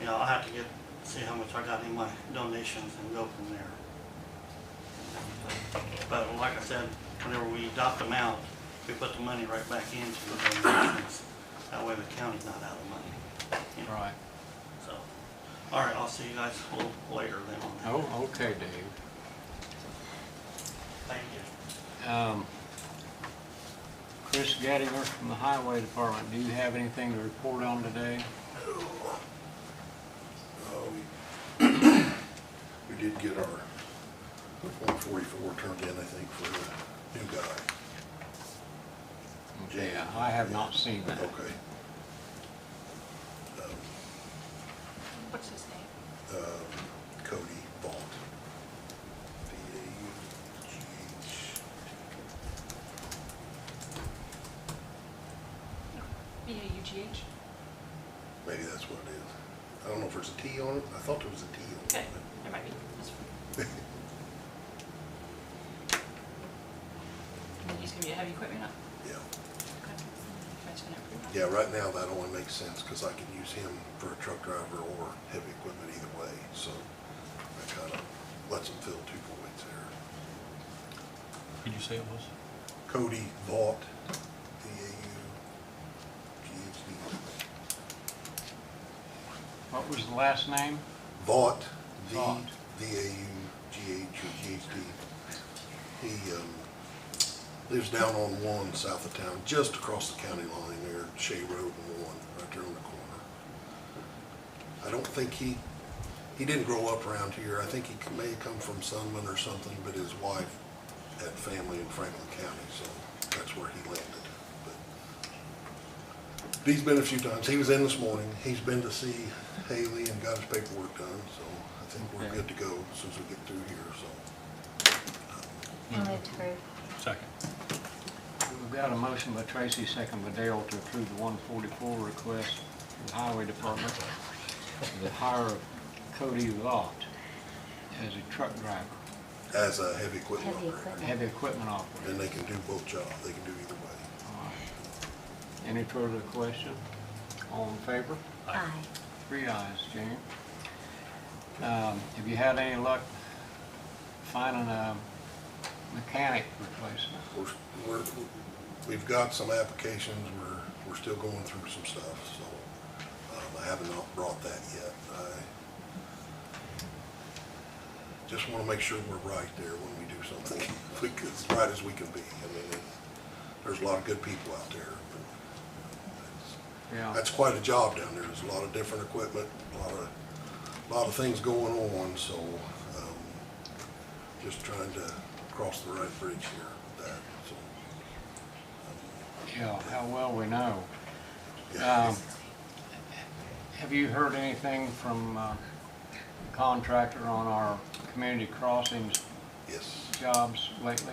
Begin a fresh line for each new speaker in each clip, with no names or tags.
you know, I'll have to get, see how much I got in my donations and go from there. But like I said, whenever we adopt them out, we put the money right back into the donations. That way the county's not out of money. you know,
Right.
So, all right, I'll see you guys a little later then on that.
Oh, okay, Dave.
Thank you.
Um, Chris Gattinger from the Highway Department, do you have anything to report on today?
Uh, we- We did get our one forty-four turned in, I think, for the new guy.
Okay, I have not seen that.
Okay. Um,
What's his name?
um, Cody Vaught. V A U G H.
B A U G H?
Maybe that's what it is. I don't know if there's a T on it. I thought there was a T on it.
Okay,
but-
there might be. That's fine. He's gonna be a heavy equipment up.
Yeah,
That's been approved.
yeah, right now that only makes sense because I can use him for a truck driver or heavy equipment either way, so that kind of lets him fill two voids there.
Could you say it was?
Cody Vaught, V A U G H T.
What was the last name?
Vaught, V,
Vaught.
V A U G H or G H T. He, um, lives down on one south of town, just across the county line there, Shea Road and one, right there on the corner. I don't think he, he didn't grow up around here. I think he c- may have come from Sunman or something, but his wife had family in Franklin County, so that's where he landed. But He's been a few times. He was in this morning. He's been to see Haley and got his paperwork done, so I think we're
Okay.
good to go as soon as we get through here, so.
I'll move to approve.
Second.
We've got a motion by Tracy, second by Dale to approve the 144 request from the Highway Department to hire Cody Vaught as a truck driver,
As a heavy equipment
Heavy
operator.
equipment.
heavy equipment operator.
And they can do both jobs. They can do either way.
All right. Any further question? All in favor?
Aye.
Three ayes, Jane. Um, Have you had any luck finding a mechanic replacement?
We're, we're, we've got some applications, we're, we're still going through some stuff, so, um, I haven't not brought that yet. I just wanna make sure we're right there when we do something, because right as we can be, I mean, it's- there's a lot of good people out there, but
Yeah.
that's, that's quite a job down there, there's a lot of different equipment, a lot of, a lot of things going on, so, um, just trying to cross the right bridge here with that, so.
Yeah, how well we know.
Yeah.
Um, Have you heard anything from uh, the contractor on our community crossings
Yes,
jobs lately?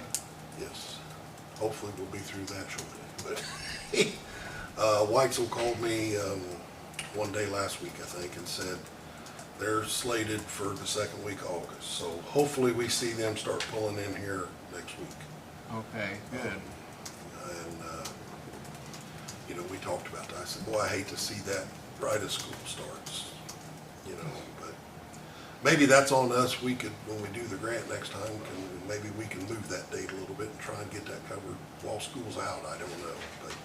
yes. Hopefully we'll be through that shortly, but, uh, Weitzel called me, um, one day last week, I think, and said they're slated for the second week of August, so hopefully we see them start pulling in here next week.
Okay, good.
And, uh, you know, we talked about that. I said, boy, I hate to see that right as school starts, you know, but maybe that's on us. We could, when we do the grant next time, can, maybe we can move that date a little bit and try and get that covered while school's out. I don't know, but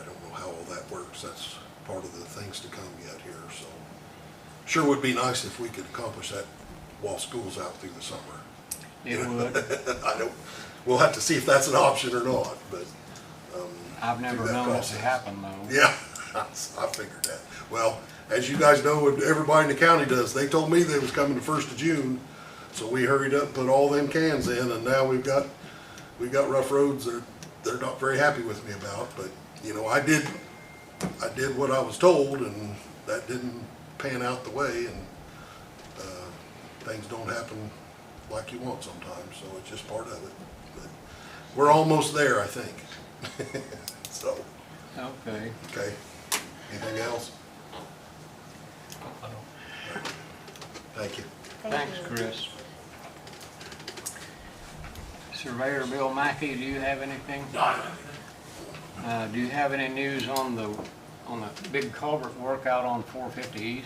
I don't know how all that works. That's part of the things to come yet here, so. Sure would be nice if we could accomplish that while school's out through the summer.
It would.
I don't, we'll have to see if that's an option or not, but,
I've never
that
known it to
process.
happen, though.
yeah, I figured that. Well, as you guys know, and everybody in the county does, they told me they was coming the first of June, so we hurried up and put all them cans in, and now we've got, we've got rough roads that they're not very happy with me about, but, you know, I did, I did what I was told, and that didn't pan out the way, and, uh, things don't happen like you want sometimes, so it's just part of it. But We're almost there, I think. So.
Okay.
Okay, anything else?
I don't.
Thank you.
Thanks,
you.
Chris. Surveyor Bill Mackey, do you have anything? Uh, do you have any news on the, on the big culvert work out on four fifty east?